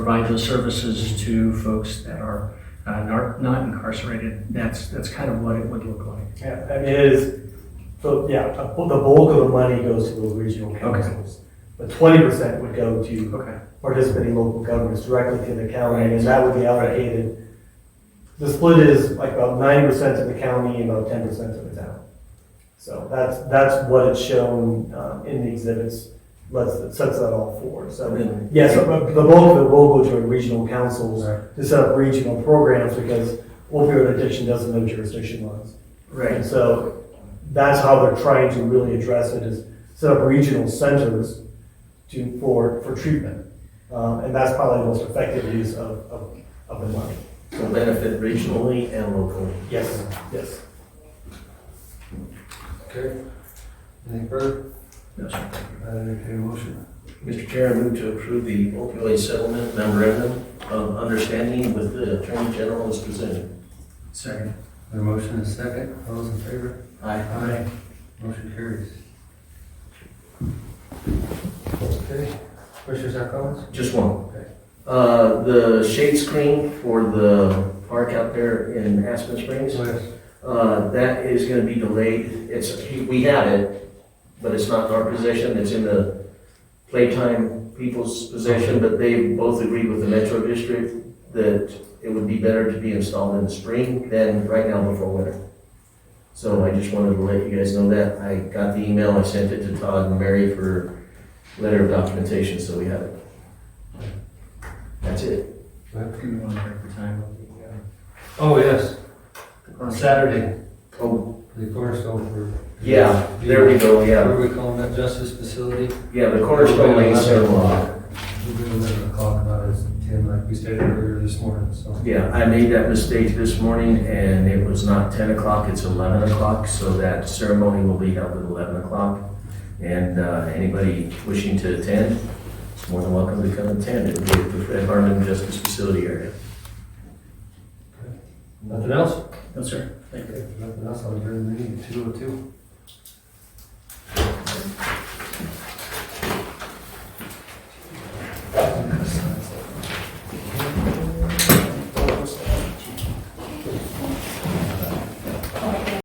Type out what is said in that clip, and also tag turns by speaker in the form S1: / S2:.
S1: provide those services to folks that are uh, nar- not incarcerated. That's, that's kind of what it would look like.
S2: Yeah, I mean, it is, so, yeah, a- the bulk of the money goes to the regional councils. But twenty percent would go to
S1: Okay.
S2: participating local governments directly to the county, and that would be allocated. The split is like about ninety percent to the county and about ten percent to the town. So that's, that's what it's shown, um, in the exhibits, lets, sets that all forward, so. Yes, but the bulk of it will go to regional councils to set up regional programs because opioid addiction doesn't know jurisdiction lines. And
S1: Right,
S2: so that's how they're trying to really address it is set up regional centers to, for, for treatment. Um, and that's probably the most effective use of, of, of the money.
S3: will benefit regionally and locally.
S2: Yes, yes.
S4: Okay. Any further?
S1: No, sir.
S4: Uh, I entertain a motion.
S3: Mr. Chair, I move to approve the opioid settlement memorandum of understanding with the Attorney General as presented.
S1: Second.
S4: A motion is second. All those in favor?
S3: Aye.
S4: Aye. Motion carries. Okay. Commissioners, have comments?
S3: Just one.
S4: Okay.
S3: Uh, the shade screen for the park out there in Aspen Springs,
S4: Yes.
S3: uh, that is gonna be delayed. It's, we have it, but it's not in our possession, it's in the playtime people's possession, but they both agreed with the Metro District that it would be better to be installed in the spring than right now before winter. So I just wanted to let you guys know that. I got the email, I sent it to Todd and Mary for letter of documentation, so we have it. That's it.
S1: Do you want to break the time? of
S4: Oh, yes.
S1: the, uh,
S4: On Saturday,
S3: Oh,
S4: the cornerstone for.
S3: yeah, there we go,
S4: What
S3: yeah.
S4: are we calling that? Justice facility?
S3: Yeah, the cornerstone lane sidewalk.
S4: We'll do eleven o'clock, not as ten, like we stated earlier this morning, so.
S3: Yeah, I made that mistake this morning and it was not ten o'clock, it's eleven o'clock, so that ceremony will be held at eleven o'clock. And, uh, anybody wishing to attend, is more than welcome to come attend. It'll be at the Fred Harmon Justice Facility area.
S4: Nothing else?
S1: No, sir. Thank you.
S4: Nothing else, I'll adjourn the meeting, two oh two.